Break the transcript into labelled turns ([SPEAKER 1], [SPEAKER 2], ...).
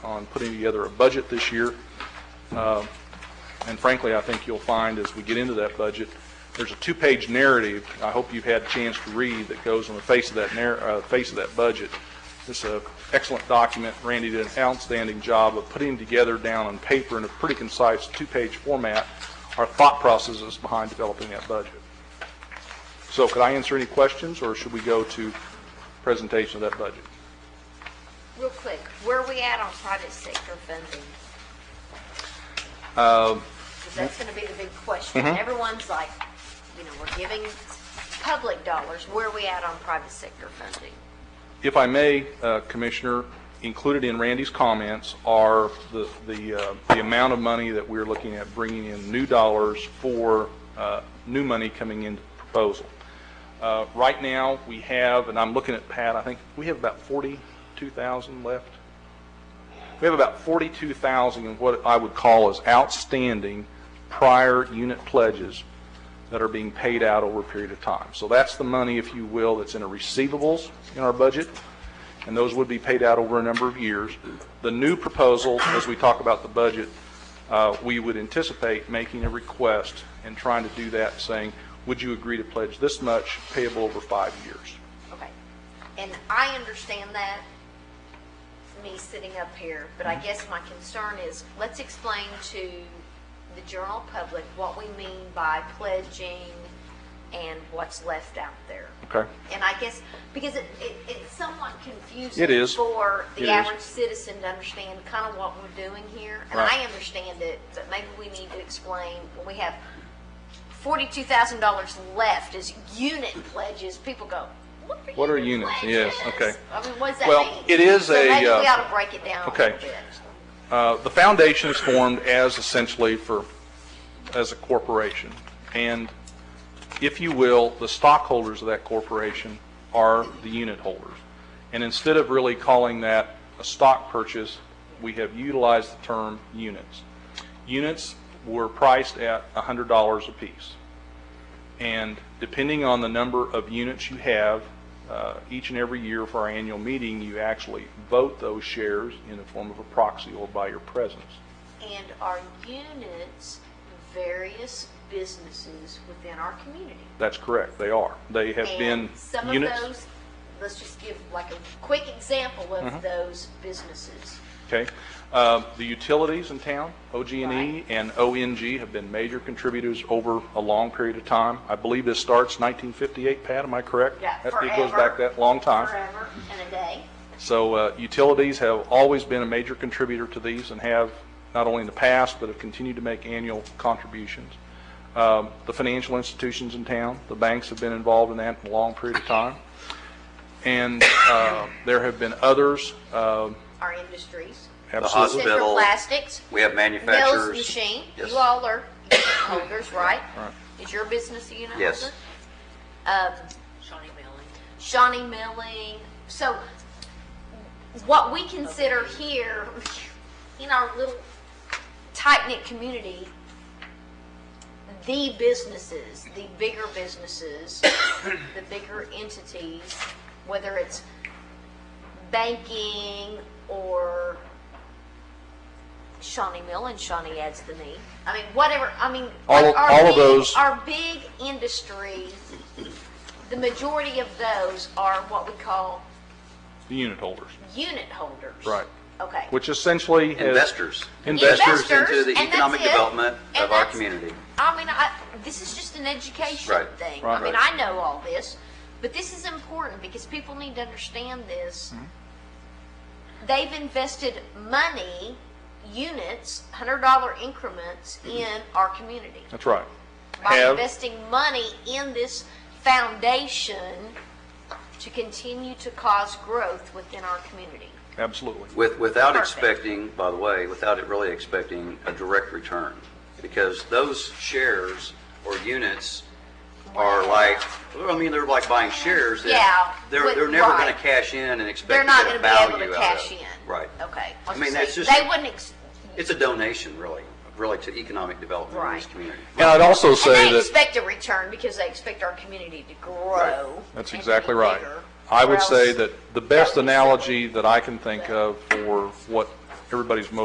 [SPEAKER 1] on putting together a budget this year. Uh, And frankly, I think you'll find as we get into that budget, there's a two-page narrative, I hope you've had a chance to read, that goes on the face of that narr, uh, face of that budget. It's an excellent document. Randy did an outstanding job of putting together down on paper in a pretty concise two-page format our thought processes behind developing that budget. So could I answer any questions, or should we go to presentation of that budget?
[SPEAKER 2] Real quick, where are we at on private sector funding? 'Cause that's going to be the big question. Everyone's like, you know, we're giving public dollars, where are we at on private sector funding?
[SPEAKER 1] If I may, uh, Commissioner, included in Randy's comments are the, the uh, the amount of money that we're looking at bringing in new dollars for uh, new money coming into the proposal. Uh, Right now, we have, and I'm looking at Pat, I think we have about 42,000 left. We have about 42,000 in what I would call as outstanding prior unit pledges that are being paid out over a period of time. So that's the money, if you will, that's in a receivables in our budget, and those would be paid out over a number of years. The new proposal, as we talk about the budget, uh, we would anticipate making a request and trying to do that, saying, would you agree to pledge this much payable over five years?
[SPEAKER 2] Okay. And I understand that, me sitting up here, but
[SPEAKER 1] Mm-hmm.
[SPEAKER 2] I guess my concern is, let's explain to the general public what we mean by pledging and what's left out there.
[SPEAKER 1] Okay?
[SPEAKER 2] And I guess, because it, it, it's somewhat confusing.
[SPEAKER 1] It is.
[SPEAKER 2] For
[SPEAKER 1] It is.
[SPEAKER 2] the average citizen to understand kind of what we're doing here. And
[SPEAKER 1] Right.
[SPEAKER 2] I understand it, but maybe we need to explain, when we have forty-two thousand dollars left as unit pledges, people go, what are unit
[SPEAKER 1] What are
[SPEAKER 2] pledges?
[SPEAKER 1] units? Yes, okay.
[SPEAKER 2] I mean, what does that mean?
[SPEAKER 1] Well, it is
[SPEAKER 2] So
[SPEAKER 1] a,
[SPEAKER 2] maybe we
[SPEAKER 1] uh,
[SPEAKER 2] ought to break it down a
[SPEAKER 1] okay.
[SPEAKER 2] little bit.
[SPEAKER 1] Uh, The foundation is formed as essentially for, as a corporation. And if you will, the stockholders of that corporation are the unit holders. And instead of really calling that a stock purchase, we have utilized the term units. Units were priced at $100 apiece. And depending on the number of units you have, uh, each and every year for our annual meeting, you actually vote those shares in the form of a proxy or by your presence.
[SPEAKER 2] And are units various businesses within our community?
[SPEAKER 1] That's correct, they are. They have been
[SPEAKER 2] And some of
[SPEAKER 1] units.
[SPEAKER 2] those, let's just give like a quick example
[SPEAKER 1] Mm-hmm.
[SPEAKER 2] of those businesses.
[SPEAKER 1] Okay. Uh, The utilities in town, OG&E
[SPEAKER 2] Right.
[SPEAKER 1] and ONG, have been major contributors over a long period of time. I believe this starts 1958, Pat, am I correct?
[SPEAKER 2] Yeah,
[SPEAKER 1] That- It goes
[SPEAKER 2] forever.
[SPEAKER 1] back that long time.
[SPEAKER 2] Forever and a day.
[SPEAKER 1] So uh, utilities have always been a major contributor to these and have, not only in the past, but have continued to make annual contributions. Um, The financial institutions in town, the banks have been involved in that for a long period of time. And uh, there have been others, um,
[SPEAKER 2] Our industries.
[SPEAKER 1] absolutely.
[SPEAKER 2] Central
[SPEAKER 3] Hospital.
[SPEAKER 2] Plastics.
[SPEAKER 3] We have
[SPEAKER 2] Mills
[SPEAKER 3] manufacturers.
[SPEAKER 2] Machine.
[SPEAKER 3] Yes.
[SPEAKER 2] You all are unit holders, right?
[SPEAKER 1] Right.
[SPEAKER 2] Is your business a unit holder?
[SPEAKER 3] Yes.
[SPEAKER 2] Shawnee Milling. Shawnee Milling. So what we consider here in our little tight-knit community, the businesses, the bigger businesses, the bigger entities, whether it's banking or Shawnee Mill and Shawnee adds the knee. I mean, whatever, I mean.
[SPEAKER 1] All-
[SPEAKER 2] our- our
[SPEAKER 1] all of
[SPEAKER 2] big-
[SPEAKER 1] those-
[SPEAKER 2] Our big industry, the majority of those are what we call
[SPEAKER 1] The unit holders,
[SPEAKER 2] unit holders.
[SPEAKER 1] Right.
[SPEAKER 2] Okay.
[SPEAKER 1] which essentially has...
[SPEAKER 3] investors.
[SPEAKER 1] Investors.
[SPEAKER 3] Into
[SPEAKER 2] Investors,
[SPEAKER 3] the
[SPEAKER 2] and
[SPEAKER 3] economic
[SPEAKER 2] that's it.
[SPEAKER 3] development
[SPEAKER 2] And
[SPEAKER 3] of our
[SPEAKER 2] that's-
[SPEAKER 3] community.
[SPEAKER 2] I mean, I, this is just an education
[SPEAKER 3] Right,
[SPEAKER 2] thing.
[SPEAKER 1] right.
[SPEAKER 2] I mean,
[SPEAKER 3] Right.
[SPEAKER 2] I know all this, but this is important because people need to understand this.
[SPEAKER 1] Mm-hmm.
[SPEAKER 2] They've invested money, units, $100 increments
[SPEAKER 3] Mm-hmm.
[SPEAKER 2] in our community
[SPEAKER 1] That's right.
[SPEAKER 2] by
[SPEAKER 1] Have-
[SPEAKER 2] investing money in this foundation to continue to cause growth within our community.
[SPEAKER 1] Absolutely.
[SPEAKER 3] With, without
[SPEAKER 2] Perfect.
[SPEAKER 3] expecting, by the way, without it really expecting a direct return. Because those shares or units are like, well, I mean, they're like buying shares. that
[SPEAKER 2] Yeah,
[SPEAKER 3] They're,
[SPEAKER 2] with-
[SPEAKER 3] they're never going
[SPEAKER 2] right.
[SPEAKER 3] to cash in and
[SPEAKER 2] They're
[SPEAKER 3] expect
[SPEAKER 2] not
[SPEAKER 3] to
[SPEAKER 2] going
[SPEAKER 3] get
[SPEAKER 2] to
[SPEAKER 3] a
[SPEAKER 2] be
[SPEAKER 3] value
[SPEAKER 2] able to
[SPEAKER 3] out of
[SPEAKER 2] cash
[SPEAKER 3] it.
[SPEAKER 2] in.
[SPEAKER 3] Right.
[SPEAKER 2] Okay.
[SPEAKER 3] I mean, that's just,
[SPEAKER 2] They wouldn't, ex-
[SPEAKER 3] it's a donation really, really to economic development in this
[SPEAKER 2] Right.
[SPEAKER 3] community.
[SPEAKER 1] And I'd also
[SPEAKER 2] And
[SPEAKER 1] say
[SPEAKER 2] they
[SPEAKER 1] that...
[SPEAKER 2] expect a return because they expect our community to grow.
[SPEAKER 1] That's
[SPEAKER 2] and
[SPEAKER 1] exactly
[SPEAKER 2] be
[SPEAKER 1] right.
[SPEAKER 2] bigger,
[SPEAKER 1] I
[SPEAKER 2] or
[SPEAKER 1] would say
[SPEAKER 2] else-
[SPEAKER 1] that the best analogy that I can think of for what everybody's motivated